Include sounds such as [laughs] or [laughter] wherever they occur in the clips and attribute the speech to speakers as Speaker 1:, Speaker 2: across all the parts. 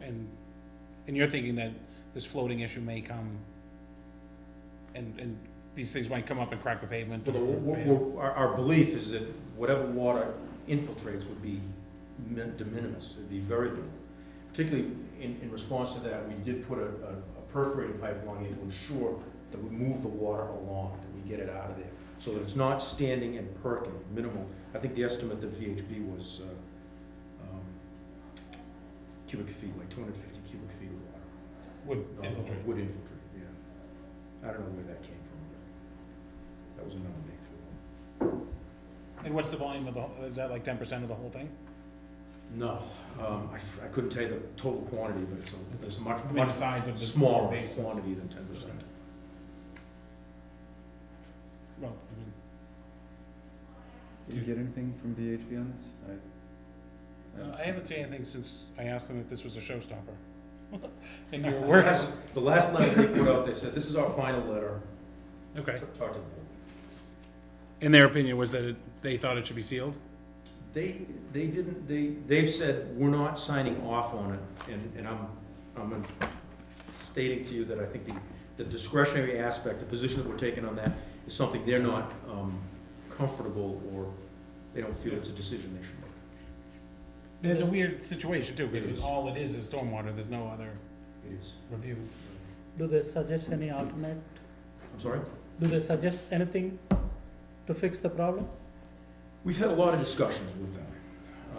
Speaker 1: and, and you're thinking that this floating issue may come, and, and these things might come up and crack the pavement.
Speaker 2: But w- w- w- Our, our belief is that whatever water infiltrates would be min- de minimis, it'd be very little. Particularly in, in response to that, we did put a, a a perforated pipeline in to ensure that we move the water along, that we get it out of there. So that it's not standing and perking, minimal. I think the estimate that VHB was, uh, um, cubic feet, like two hundred fifty cubic feet of water.
Speaker 1: Would
Speaker 2: No,
Speaker 1: infiltrate.
Speaker 2: Wood infiltrate, yeah. I don't know where that came from, but that was another big thing.
Speaker 1: And what's the volume of the, whole- is that like ten percent of the whole thing?
Speaker 2: No, um, I, I couldn't tell you the total quantity, but it's a, it's a much,
Speaker 1: I mean, the
Speaker 2: much
Speaker 1: size of the.
Speaker 2: smaller
Speaker 1: bases.
Speaker 2: quantity than ten percent.
Speaker 1: Well, I mean,
Speaker 3: Did you get anything from VHB on this? I-
Speaker 1: uh,
Speaker 3: I
Speaker 1: I
Speaker 3: seen-
Speaker 1: haven't seen anything since I asked them if this was a showstopper. [laughs] And you were working,
Speaker 2: The last letter they put out, they said, this is our final letter,
Speaker 1: okay.
Speaker 2: talk to the board.
Speaker 1: And their opinion was that it- they thought it should be sealed?
Speaker 2: They, they didn't, they, they've said, we're not signing off on it, and, and I'm, I'm stating to you that I think the, the discretionary aspect, the position that we're taking on that is something they're not, um, comfortable or they don't feel it's a decision they should make.
Speaker 1: It's a weird situation too,
Speaker 2: It
Speaker 1: because
Speaker 2: is.
Speaker 1: all it is is stormwater, there's no other
Speaker 2: It is.
Speaker 1: review.
Speaker 4: Do they suggest any alternate?
Speaker 2: I'm sorry?
Speaker 4: Do they suggest anything to fix the problem?
Speaker 2: We've had a lot of discussions with them.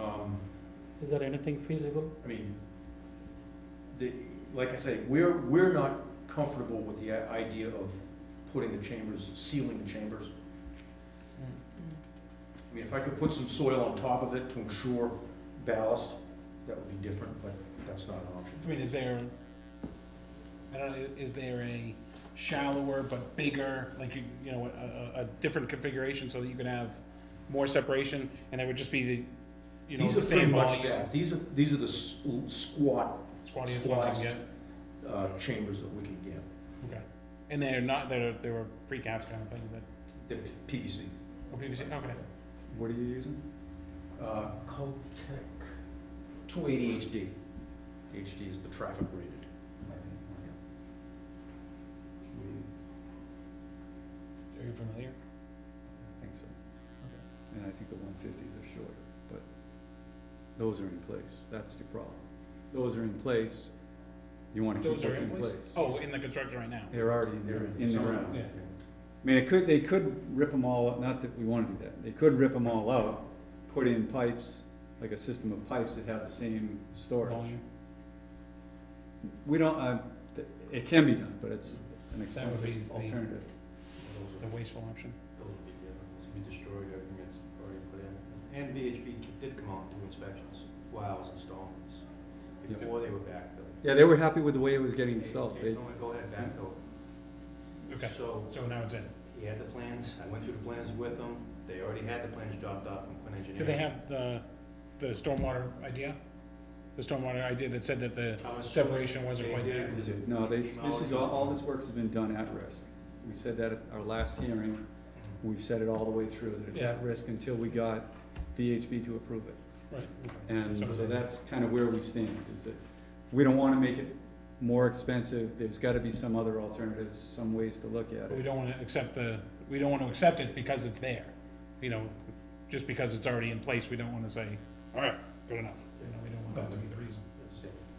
Speaker 2: Um,
Speaker 4: Is there anything feasible?
Speaker 2: I mean, the, like I say, we're, we're not comfortable with the i- idea of putting the chambers, sealing the chambers. I mean, if I could put some soil on top of it to ensure ballast, that would be different, but that's not an option.
Speaker 1: I mean, is there, I don't know, is there a shallower but bigger, like, you you know, a, a, a different configuration so that you can have more separation? And there would just be the, you know,
Speaker 2: These
Speaker 1: the
Speaker 2: are pretty
Speaker 1: same
Speaker 2: much,
Speaker 1: volume,
Speaker 2: yeah, these are, these are the s- squat,
Speaker 1: squatty as well as you
Speaker 2: squats.
Speaker 1: can
Speaker 2: uh, chambers that we can get.
Speaker 1: get. Okay. And they're not, they're, they were precast kind of thing that,
Speaker 2: They're P- PVC.
Speaker 1: or PVC, okay.
Speaker 3: What are you using?
Speaker 2: Uh, Caltech, two eighty HD. HD is the traffic rated.
Speaker 1: Are you familiar?
Speaker 3: I think so. Okay. And I think the one fifties are shorter, but those are in place, that's the problem. Those are in place, you wanna keep
Speaker 1: Those are
Speaker 3: what's
Speaker 1: in place? Oh, in the construction right now?
Speaker 3: They're already in there, in the ground.
Speaker 1: Yeah.
Speaker 3: I mean, it could, they could rip them all, out. not that we wanna do that, they could rip them all out, put in pipes, like a system of pipes that have the same storage.
Speaker 1: Volume?
Speaker 3: We don't, uh, th- it can be done, but it's
Speaker 1: That would
Speaker 3: an
Speaker 1: be
Speaker 3: expensive
Speaker 1: the-
Speaker 3: alternative.
Speaker 1: The wasteful option?
Speaker 5: building to be, uh, be destroyed, everything that's already put in. And VHB c- did come out and do inspections while I was installing this,
Speaker 3: Yeah.
Speaker 5: before they were backfilled.
Speaker 3: Yeah, they were happy with the way it was getting installed,
Speaker 5: They
Speaker 3: they,
Speaker 5: told me, go ahead, backfill.
Speaker 1: Okay,
Speaker 5: So
Speaker 1: so now it's in.
Speaker 5: he had the plans, I went through the plans with them, they already had the plans dropped off from Quinn Engineering.
Speaker 1: Did they have the, the stormwater idea? The stormwater idea that said that the
Speaker 5: I was-
Speaker 1: separation wasn't quite
Speaker 5: They did,
Speaker 1: there?
Speaker 5: because it
Speaker 3: no, they,
Speaker 5: came out
Speaker 3: this is, all, all this work's been done at risk. We said that at our last hearing, we've said it all the way through, that it's at risk until we got VHB to approve it.
Speaker 1: Right, okay.
Speaker 3: And so that's kind of where we stand, is that we don't wanna make it more expensive, there's gotta be some other alternatives, some ways to look at
Speaker 1: But we
Speaker 3: it.
Speaker 1: don't wanna accept the, we don't wanna accept it because it's there, you know, just because it's already in place, we don't wanna say, all right, good enough. You know, we don't want that to be the reason.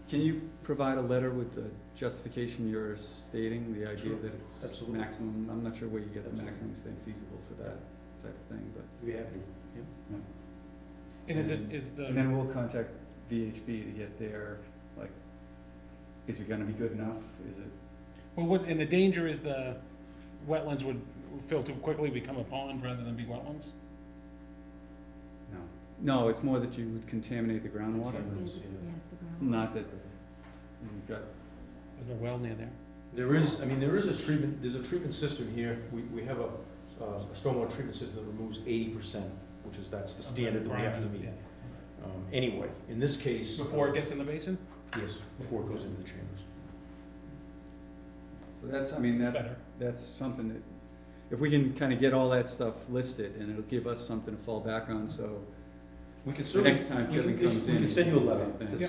Speaker 3: Can you provide a letter with the justification you're stating, the idea that it's
Speaker 2: Absolutely.
Speaker 3: maximum, I'm not sure where you get the
Speaker 2: Absolutely.
Speaker 3: maximum extent feasible for that type of thing, but.
Speaker 2: We have to.
Speaker 1: And is it, is
Speaker 2: Um,
Speaker 3: And
Speaker 1: the,
Speaker 3: then we'll contact VHB to get their, like, is it gonna be good enough? Is it,
Speaker 1: well, what, and the danger is the wetlands would fill too quickly, become a pond rather than be wetlands?
Speaker 3: no. No, it's more that you would contaminate the groundwater,
Speaker 2: Contaminants, yeah.
Speaker 3: not that you've got,
Speaker 1: There's no well near there.
Speaker 2: There is, I mean, there is a treatment, there's a treatment system here, we, we have a, uh, a stormwater treatment system that removes eighty percent, which is, that's the standard that we have to meet.
Speaker 1: Yeah.
Speaker 2: Um, anyway, in this case. uh,
Speaker 1: Before it gets in the basin,
Speaker 2: Yes, before it goes into the chambers.
Speaker 3: so that's, I mean, that,
Speaker 1: better.
Speaker 3: that's something that, if we can kinda get all that stuff listed, and it'll give us something to fall back on, so
Speaker 2: We can
Speaker 3: the
Speaker 2: certainly.
Speaker 3: next time
Speaker 2: we can-
Speaker 3: Kevin comes in.
Speaker 2: We can send you a
Speaker 3: it's the
Speaker 2: letter
Speaker 3: same thing.
Speaker 2: that